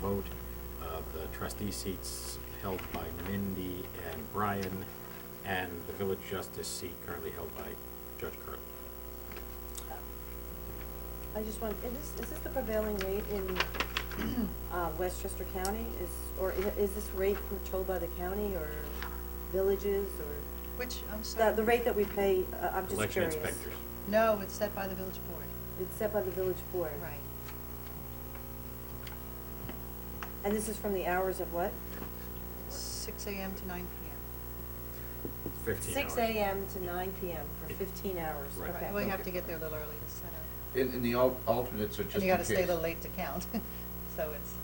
vote. Uh, The trustee seats held by Mindy and Brian, and the village justice seat currently held by Judge Curley. Um, I just want, is this, is this the prevailing rate in, uh, Westchester County? Is, or i- is this rate controlled by the county or villages or? Which, I'm sorry. The, the rate that we pay, uh, I'm just Election curious. inspectors. No, it's set by the village board. It's set by the village board. Right. And this is from the hours of what? Six AM to nine PM. Fifteen hours. Six AM to nine PM for fifteen hours, Right. okay. Well, you have to get there a little early to set up. And, and the al- alternates are just in And you gotta stay a case. little late to count, so it's.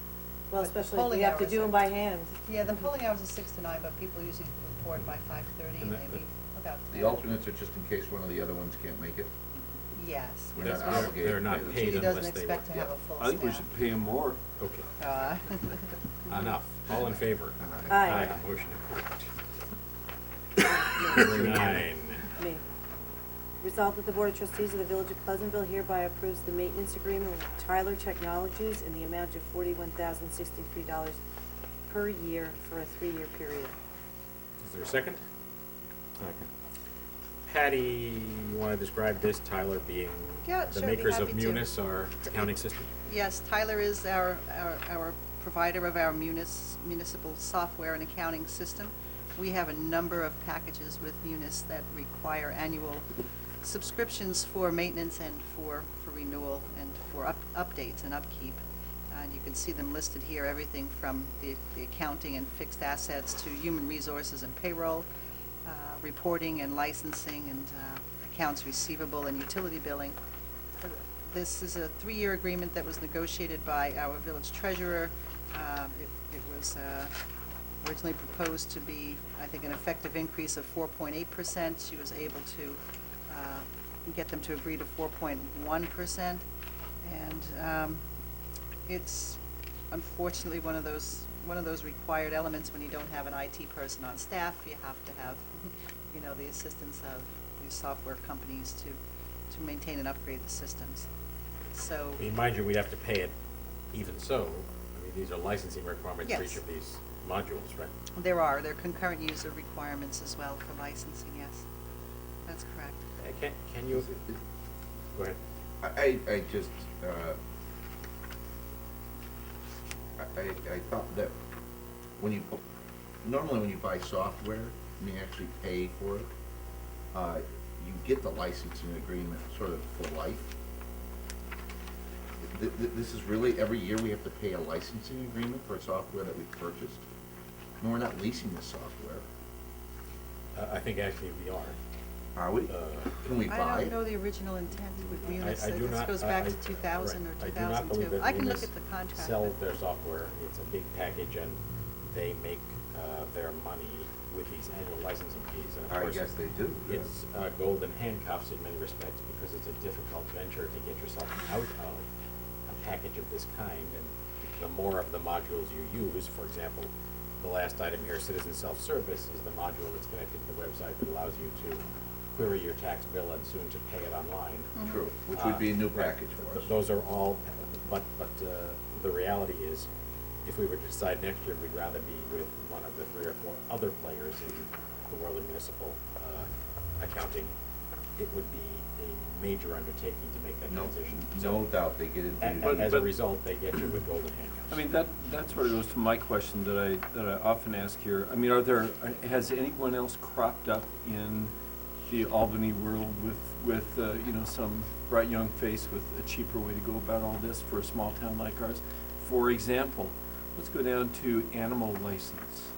Well, but the especially if polling we have to hours do are- them by hand. Yeah, the polling hours are six to nine, but people usually report by five-thirty and And they the- leave about. The alternates are just in case one of the other ones can't make it. Yes. We're yes, not yes. obligated. They're not She paid She unless doesn't they expect to work. have a Yeah. full staff. I think we should pay him more. Okay, Uh, enough. All in favor? Aye. Aye. Motion approved. Number Nine. Me. Resolved that the Board of Trustees of the Village of Pleasantville hereby approves the maintenance agreement with Tyler Technologies in the amount of forty-one thousand sixty-three dollars per year for a three-year period. Is there a second? Second. Patty, you wanna describe this, Tyler being Yeah, the sure, I'd be makers of happy to. Munis, our accounting system? Yes, Tyler is our, our- our provider of our munis, municipal software and accounting system. We have a number of packages with Munis that require annual subscriptions for maintenance and for, for renewal and for up, updates and upkeep. And you can see them listed here, everything from the, the accounting and fixed assets to human resources and payroll, uh, reporting and licensing and uh, accounts receivable and utility billing. This is a three-year agreement that was negotiated by our village treasurer. Um, It it was uh, originally proposed to be, I think, an effective increase of 4.8%. She was able to uh, get them to agree to 4.1%. And um, it's unfortunately one of those, one of those required elements when you don't have an IT person on staff. You have to have, you know, the assistance of these software companies to, to maintain and upgrade the systems. So, I mean, mind you, we'd have to pay it even so. I mean, these are licensing requirements for each Yes. of these modules, right? there are, there are concurrent user requirements as well for licensing, yes. That's correct. Uh, Can, can you, go ahead. I, I I just, uh, I, I I thought that when you, normally when you buy software, and you actually pay for it, uh, you get the licensing agreement sort of for life. Th- th- this is really, every year we have to pay a licensing agreement for software that we purchased, and we're not leasing the software, Uh, I think actually we are. are we? Uh, Can we buy? I it? don't know the original intent with I- Munis. I do This not- goes I- back I- to 2000 or right. I 2002. do not believe that can look Munis at the contract. sells but- their software. It's a big package and they make, uh, their money with these annual licensing fees. And of I course, guess they do, yeah. It's, uh, golden handcuffs in many respects because it's a difficult venture to get yourself out of a package of this kind. And the more of the modules you use, for example, the last item here, citizen self-service, is the module that's connected to the website that allows you to query your tax bill and soon to pay it online. True, which would be a new Uh, right. package for us. Those are all, but, but uh, the reality is, if we were to decide next year, we'd rather be with one of the three or four other players in the world of municipal uh, accounting. It would be a major undertaking to make that No, transition. So- no doubt they get it. And But- and as a but- result, they get you with golden handcuffs. I mean, that, that sort of goes to my question that I, that I often ask here. I mean, are there, has anyone else cropped up in the Albany world with, with, uh, you know, some bright young face with a cheaper way to go about all this for a small town like ours? For example, let's go down to animal license.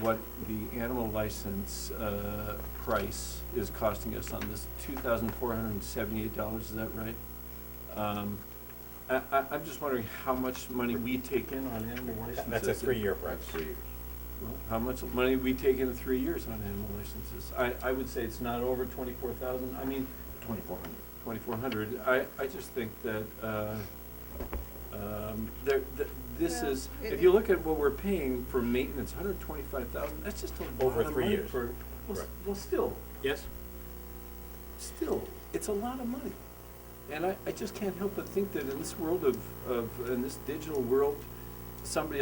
What the animal license, uh, price is costing us on this, two thousand four hundred and seventy-eight dollars, is that right? Um, I, I, I'm just wondering how much money we take in on animal licenses. That's a three-year price. That's three years. Well, How much money we take in three years on animal licenses? I, I would say it's not over twenty-four thousand, I mean, Twenty-four hundred. twenty-four hundred. I, I just think that, uh, um, there, th- this Well, is, it- if you look at what we're paying for maintenance, hundred twenty-five thousand, that's just a lot Over of three money years. for, well, s- Correct. well, still, Yes? still, it's a lot of money. And I, I just can't help but think that in this world of, of, in this digital world, somebody